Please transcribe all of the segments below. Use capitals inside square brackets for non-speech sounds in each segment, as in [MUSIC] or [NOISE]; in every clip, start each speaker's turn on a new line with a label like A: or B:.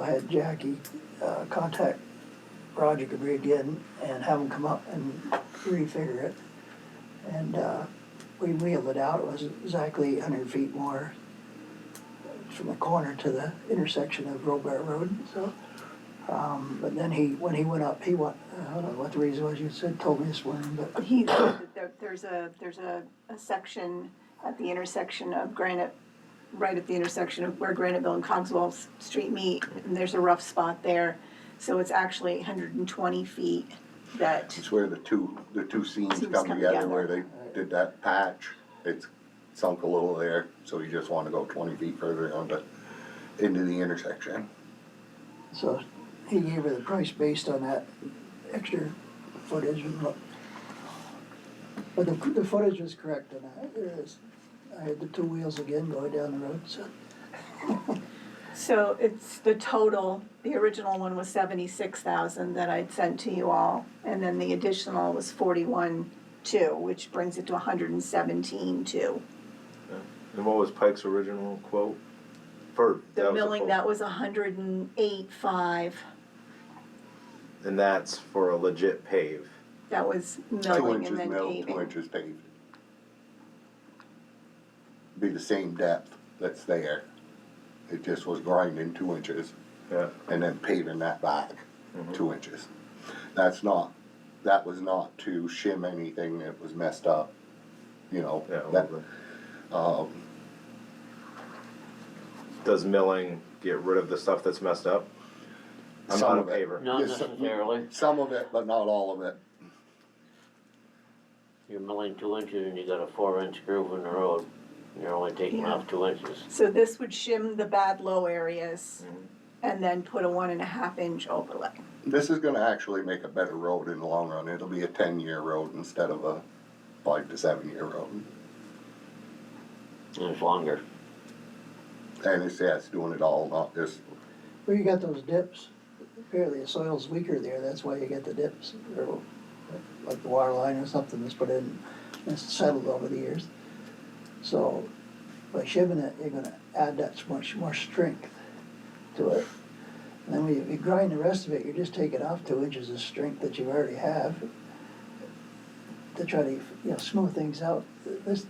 A: I had Jackie uh, contact Roger Debris again and have him come up and refigure it. And uh, we wheeled it out, it was exactly 100 feet more from the corner to the intersection of Robert Road, so. um, But then he, when he went up, he went, I don't know what the reason was, you said, told me this morning, but
B: He, there- there's a, there's a, a section at the intersection of Granite, right at the intersection of where Graniteville and Cogswell S- Street meet, and there's a rough spot there. So it's actually hundred and twenty feet that,
C: It's where the two, the two scenes
B: Scenes
C: come
B: come
C: together,
B: together.
C: where they did that patch, it's sunk a little there, so you just wanna go twenty feet further on the, into the intersection.
A: so he gave her the price based on that extra footage and look. But the, the footage was correct and I, it is, I had the two wheels again going down the road, so.
B: so it's the total, the original one was seventy-six thousand that I'd sent to you all. And then the additional was forty-one two, which brings it to hundred and seventeen two.
D: And what was Pike's original quote? For
B: The
D: that was a
B: milling,
D: quote.
B: that was hundred and eight five.
D: And that's for a legit pave.
B: That was
C: Two
B: milling
C: inches
B: and then
C: milled, two
B: paving.
C: inches paved. Be the same depth that's there, it just was grinding two inches
D: Yeah.
C: and then paving that back two inches. That's not, that was not to shim anything that was messed up, you know,
D: Yeah.
C: that,
D: well,
C: um,
D: Does milling get rid of the stuff that's messed up? I'm
C: Some
D: not a
C: of it.
D: paver.
E: Not
C: Yes, sir.
E: necessarily.
C: Some of it, but not all of it.
E: You're milling two inches and you got a four inch groove in the road. You're only taking
B: Yeah.
E: off two inches.
B: So this would shim the bad low areas
D: Mhm.
B: and then put a one and a half inch overlay.
C: This is gonna actually make a better road in the long run. It'll be a ten-year road instead of a five to seven-year road.
E: And it's longer.
C: And it's, yeah, it's doing it all, not just,
A: Well, you got those dips. Apparently the soil's weaker there, that's why you get the dips, or like the water line or something that's put in, it's settled over the years. So by shimming it, you're gonna add that much more strength to it. And then when you- you grind the rest of it, you're just taking off two inches of strength that you already have to try to, you know, smooth things out. This,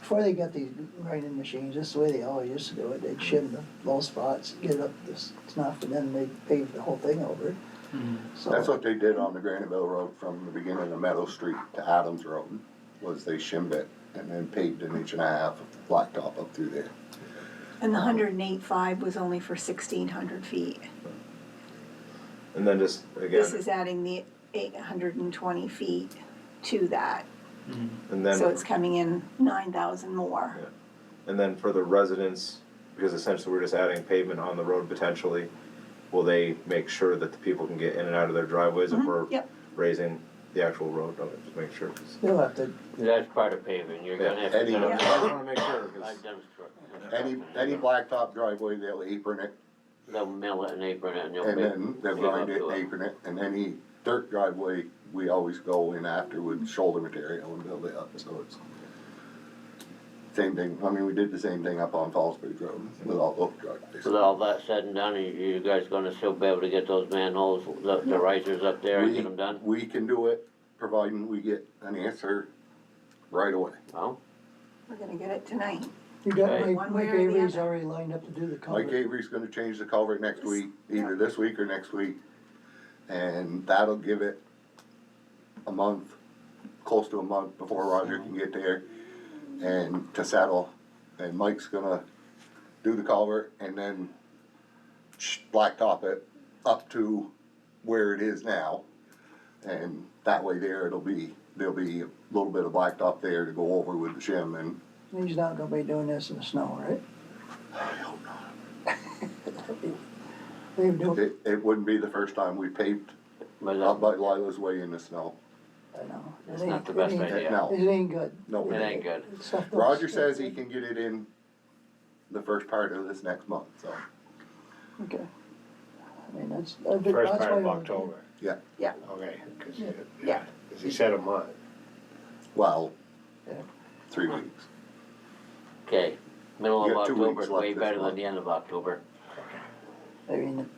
A: before they got these grinding machines, this is the way they always used to do it, they'd shim the low spots, get it up to s- snuff, and then they'd pave the whole thing over. So
C: Mm-hmm. that's what they did on the Graniteville Road from the beginning of Meadow Street to Adams Road, was they shimmed it and then paved an inch and a half of blacktop up through there.
B: And the hundred and eight five was only for sixteen hundred feet.
D: And then just
B: This
D: again,
B: is adding the eight hundred and twenty feet to that,
D: and then
B: so it's coming in nine thousand more.
D: Yeah. and then for the residents, because essentially we're just adding pavement on the road potentially. Will they make sure that the people can get in and out of their driveways if
B: Mhm,
D: we're
B: yep.
D: raising the actual road? Okay, Just make sure. 'cause-
A: They'll have to,
E: That's part of paving. You're gonna have to.
C: Any-
E: get
D: I
E: a-
D: just wanna make sure, 'cause-
E: I've done stru-
C: Any, any blacktop driveway, they'll apron it
E: They'll mill it and apron it and you'll.
C: And then they'll grind it,
E: apron.
C: apron it, and any dirt driveway, we always go in after with shoulder material and build it up, so it's. Same thing, I mean, we did the same thing up on Fallsbridge Road with all those driveways.
E: With all that said and done, you, you guys gonna still be able to get those manholes, the, the risers up there and
C: We-
E: get them done?
C: We can do it, providing we get an answer right away.
E: Well,
B: We're gonna get it tonight.
A: you got,
E: Okay.
A: Mike,
B: One
A: Mike
B: way or the
A: Avery's
B: other.
A: already lined up to do the
C: Mike
A: culvert.
C: Avery's gonna change the culvert next week, either this week or next week, and that'll give it a month, close to a month before Roger can get there and to settle. And Mike's gonna do the culvert and then sh- blacktop it up to where it is now. And that way there, it'll be, there'll be a little bit of blacktop there to go over with the shim and
A: He's not gonna be doing this in the snow, right? [LAUGHS] They do,
C: it, it wouldn't be the first time we paved
E: but
C: Out by
E: that-
C: Lila's Way in the snow.
A: I know. It
E: It's
A: ain't-
E: not the
A: it
E: best
A: ain't-
E: idea.
C: No.
A: It ain't good.
C: No.
E: it ain't good.
A: Stuff don't
C: Roger
A: stick.
C: says he can get it in the first part of this next month, so,
A: Okay. I mean, that's, that's been-
F: First
A: that's
F: part of
A: my-
F: October,
C: yeah,
F: okay, because,
B: Yeah.
F: yeah, 'cause he said a month.
C: well,
A: Yeah.
C: three weeks.
E: Okay, middle
C: You
E: of
C: got two
E: October,
C: weeks
E: is way
C: left this
E: better than
C: month.
E: the end of October.
A: I mean,